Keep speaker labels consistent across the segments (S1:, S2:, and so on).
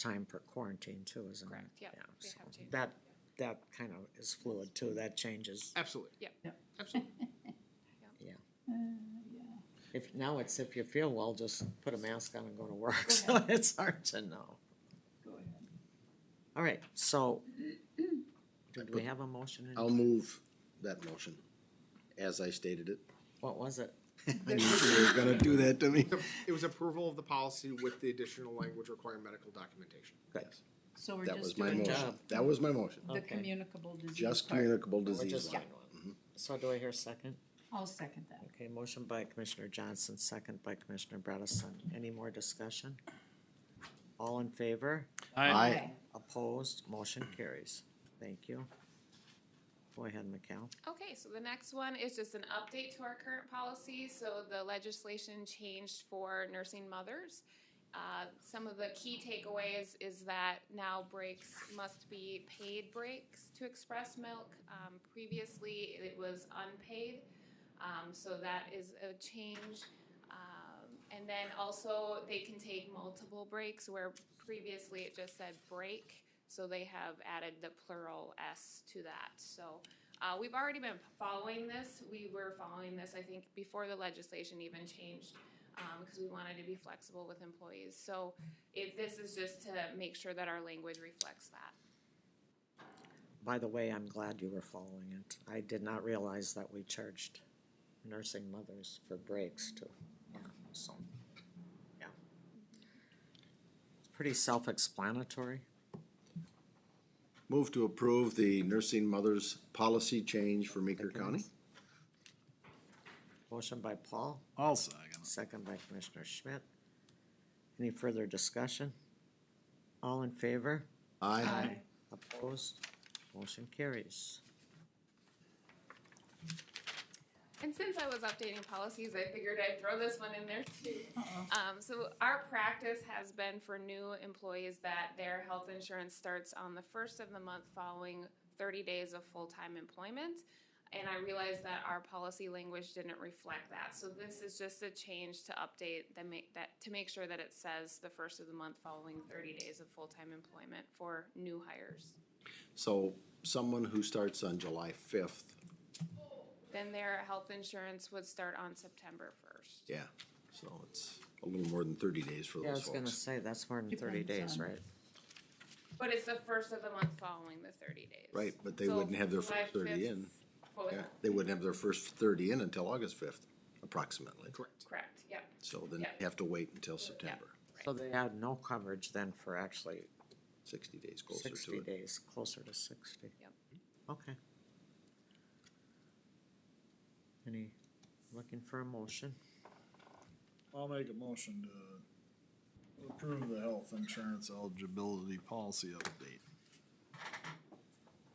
S1: time per quarantine too, isn't it?
S2: Correct, yep, they
S1: so
S2: have to. Mm-hmm.
S1: That, that kind of is fluid too, that changes,
S2: Uh,
S3: Absolutely.
S2: Yep.
S4: Yep.
S3: Absolutely.
S1: yeah.
S4: Uh, yeah.
S1: If, now it's if you feel well, just put a mask on and go to work, so it's hard to know.
S4: Go ahead.
S1: All right, so,
S5: I
S1: did
S5: put-
S1: we have a motion? in-
S5: I'll move that motion as I stated it.
S1: What was it?
S5: I knew you were gonna do that to me.
S3: The- It was approval of the policy with the additional language requiring medical documentation.
S5: Yes,
S4: So we're
S5: That
S4: just
S5: was my
S4: doing
S5: motion.
S1: job.
S5: That was my motion.
S4: the
S1: Okay.
S4: communicable disease
S5: Just
S4: part.
S5: communicable
S1: We're
S5: disease
S1: just
S5: line.
S1: doing one. So do I hear a second?
S4: I'll second that.
S1: Okay, motion by Commissioner Johnson, second by Commissioner Bredesen. Any more discussion? All in favor?
S5: Aye.
S4: Okay.
S1: Opposed? Motion carries. Thank you. Go ahead, Mikhail.
S2: Okay, so the next one is just an update to our current policy. So the legislation changed for nursing mothers. Uh, Some of the key takeaways is that now breaks must be paid breaks to express milk. Um, Previously, it was unpaid. Um, So that is a change. Um, And then also, they can take multiple breaks where previously it just said break. So they have added the plural S to that. So uh, we've already been following this. We were following this, I think, before the legislation even changed, um, because we wanted to be flexible with employees. So if this is just to make sure that our language reflects that.
S1: By the way, I'm glad you were following it. I did not realize that we charged nursing mothers for breaks too. Yeah, So, yeah. It's Pretty self-explanatory.
S5: Move to approve the nursing mothers policy change for Meeker County.
S1: Motion by Paul,
S6: I'll second.
S1: second by Commissioner Schmidt. Any further discussion? All in favor?
S5: Aye.
S1: Opposed? Motion carries.
S2: And since I was updating policies, I figured I'd throw this one in there too.
S4: Uh-oh.
S2: Um, so our practice has been for new employees that their health insurance starts on the first of the month following thirty days of full-time employment. And I realized that our policy language didn't reflect that, so this is just a change to update that make, that, to make sure that it says the first of the month following thirty days of full-time employment for new hires.
S5: So someone who starts on July fifth,
S2: Then their health insurance would start on September first.
S5: yeah, so it's a little more than thirty days for
S1: Yeah, I
S5: those
S1: was gonna
S5: folks.
S1: say, that's more than thirty
S4: Depends
S1: days,
S4: on-
S1: right?
S2: But it's the first of the month following the thirty days.
S5: Right, but they
S2: So
S5: wouldn't have their
S2: July
S5: first thirty
S2: 5th
S5: in.
S2: what was
S5: Yeah,
S2: that?
S5: they wouldn't have their first thirty in until August fifth, approximately.
S3: Correct.
S2: Correct, yep.
S5: So then
S2: Yeah.
S5: you have to wait until September,
S1: So they had no coverage then for actually
S5: sixty days closer to
S1: sixty
S5: it.
S1: days, closer to sixty.
S2: Yep.
S1: Okay. Any, looking for a motion?
S6: I'll make a motion to approve the health insurance eligibility policy update.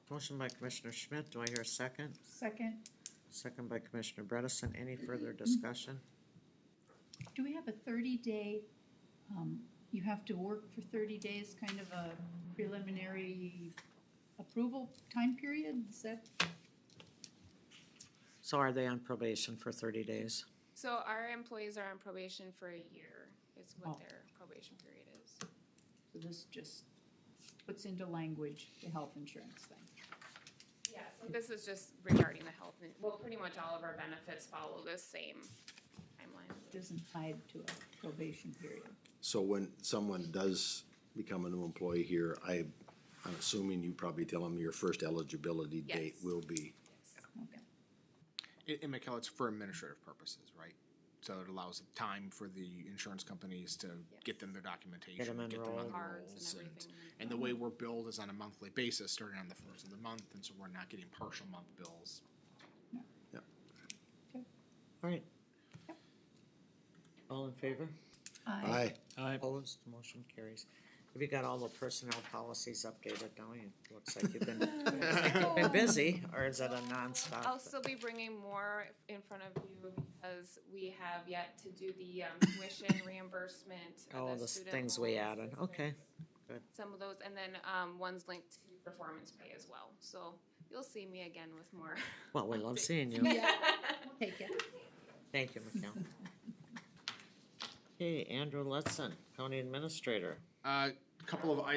S1: Motion by Commissioner Schmidt, do I hear a second?
S4: Second,
S1: Second by Commissioner Bredesen, any further discussion?
S4: do we have a thirty day, um, you have to work for thirty days, kind of a preliminary approval time period? Is that,
S1: So are they on probation for thirty days?
S2: So our employees are on probation for a year, is
S4: Oh.
S2: what their probation period is.
S4: so this just puts into language the health insurance thing?
S2: Yeah, so this is just regarding the health, and- well, pretty much all of our benefits follow this same timeline.
S4: Doesn't tied to a probation period.
S5: So when someone does become a new employee here, I, I'm assuming you probably tell them your first eligibility date
S2: Yes.
S5: will be.
S4: Okay.
S3: And, and Mikel, it's for administrative purposes, right? So it allows time for the insurance companies to get them their documentation,
S1: Get 'em
S3: on
S1: enrolled.
S3: the
S2: Cards
S3: rolls,
S2: and
S3: and, Mm-hmm.
S2: everything.
S3: and the way we're billed is on a monthly basis, starting on the first of the month, and so we're not getting partial month bills.
S1: All right. All in favor?
S4: I
S5: Aye,
S1: Opposed, motion carries. Have you got all the personnel policies updated, don't you? Looks like you've been, been busy, or is it a
S2: I'll
S1: nonstop?
S2: still be bringing more in front of you because we have yet to do the um, tuition reimbursement. uh,
S1: All the
S2: student
S1: things we
S2: loans,
S1: added, okay.
S2: Some of those, and then um, one's linked to performance pay as well. So you'll see me again with more.
S1: Well, we love seeing you.
S4: Take it.
S1: Thank you, Mikel. Okay, Andrew Letson, County Administrator.
S3: Uh, couple of items